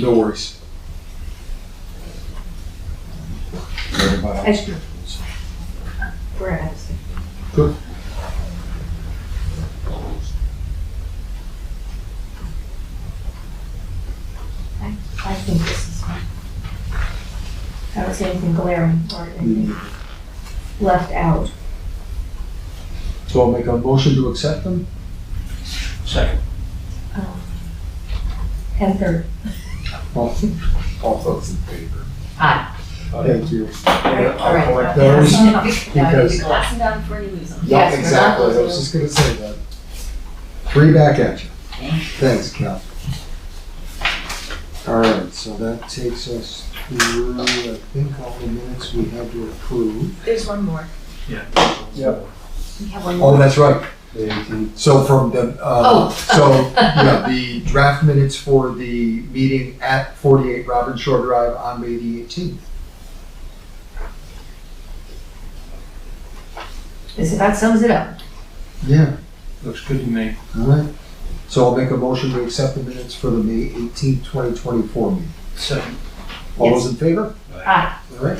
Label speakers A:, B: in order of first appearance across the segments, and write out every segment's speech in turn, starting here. A: No worries.
B: Everybody else good.
C: We're at Addison. I, I think this is fine. I don't see anything glaring or anything left out.
A: So I'll make a motion to accept them?
D: Second.
C: Um, And third,
A: All all those in favor?
E: Aye.
A: Thank you.
E: Alright.
D: I'll collect
A: Those,
E: Now you
A: Because-
E: can glass them down before you lose them.
A: yeah,
E: Yes, we're not
A: exactly, I was
E: losing
A: just gonna say that. Three back at you.
E: Thank you.
A: Thanks, Cal. All right, so that takes us through, I think, all the minutes we had to approve.
F: There's one more.
A: Yep.
C: we have one
A: Oh,
C: more.
A: that's right. So from the, uh,
E: Oh.
A: so, yeah, the draft minutes for the meeting at 48 Robin Shore Drive on May the 18th.
C: This about sums it up.
A: Yeah,
D: Looks good to me.
A: all right. So I'll make a motion to accept the minutes for the May 18th, 2024 meeting.
D: Second.
A: All those in favor?
C: Aye.
A: All right.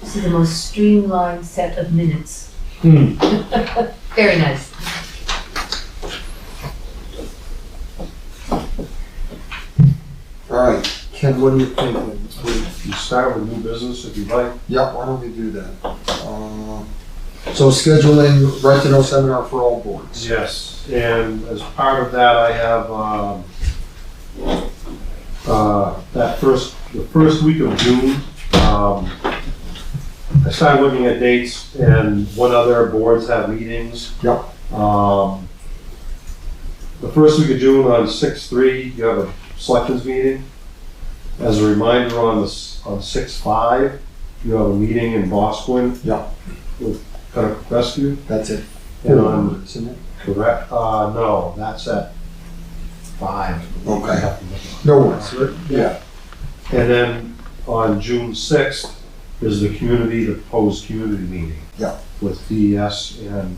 C: This is the most streamlined set of minutes.
A: Hmm.
E: Very nice.
A: All right, Ken, what do you think? Would-
B: You start with new business if you like.
A: Yeah, why don't we do that? Um, So scheduling retinal seminar for all boards.
B: Yes, and as part of that, I have, um, uh, that first, the first week of June, um, I started looking at dates and what other boards have meetings.
A: Yep.
B: Um, the first week of June on six three, you have a selectors meeting. As a reminder, on the, s- on six five, you have a meeting in Bosquen.
A: Yep.
B: With Conoco Rescue.
A: That's it.
B: And on
A: Isn't it?
B: Correct, uh, no, that's at five.
A: Okay. No worries. Yeah.
B: And then on June sixth is the community, the proposed community meeting.
A: Yeah.
B: With DES and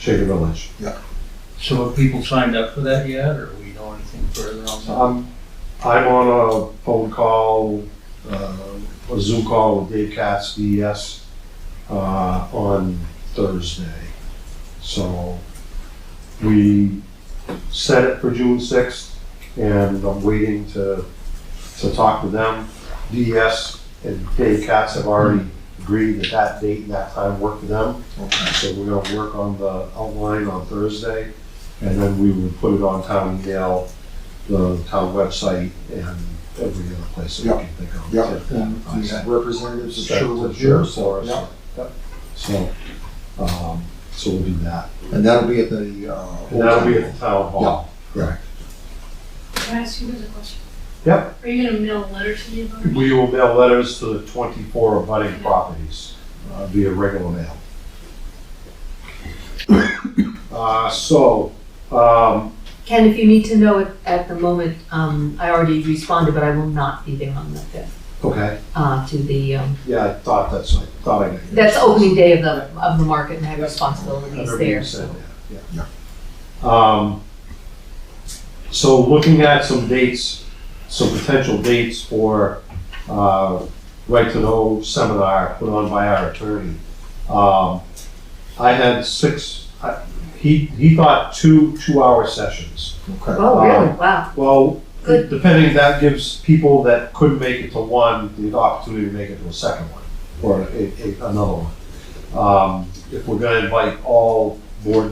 B: Shaker Village.
D: So have people signed up for that yet, or we know anything further on that?
B: Um, I'm on a phone call, uh, a Zoom call with Dave Katz, DES, uh, on Thursday. So we set it for June sixth and I'm waiting to, to talk to them. DES and Dave Katz have already agreed that that date and that time work for them.
A: Okay.
B: So we're gonna work on the outline on Thursday, and then we will put it on town email, the town website, and every other place that we can think of.
A: Yeah.
B: to
A: And
B: advertise.
A: the Representatives of
B: Set
A: Sherwood
B: to
A: here,
B: share
A: so,
B: for
A: yeah.
B: us. So, um, so we'll do that.
A: And that'll be at the, uh.
B: And that'll be at the town hall.
G: Can I ask you guys a question?
B: Yep.
G: Are you gonna mail a letter to me about it?
B: We will mail letters to the twenty-four abutting properties uh, via regular mail. Uh, so, um,
E: Ken, if you need to know it at the moment, um, I already responded, but I will not be there on the fifth,
B: okay,
E: uh, to the, um,
B: yeah, I thought that's, I thought I.
E: that's opening day of the, of the market and I have responsibilities there, so.
B: Yeah. Um, so looking at some dates, some potential dates for, uh, Right to Know seminar put on by our attorney. Um, I had six, I- he, he thought two, two-hour sessions.
A: Okay.
E: Oh, really? Wow.
B: Well,
E: Good.
B: depending, that gives people that couldn't make it to one, the opportunity to make it to a second one, or a, a, another one. Um, if we're gonna invite all board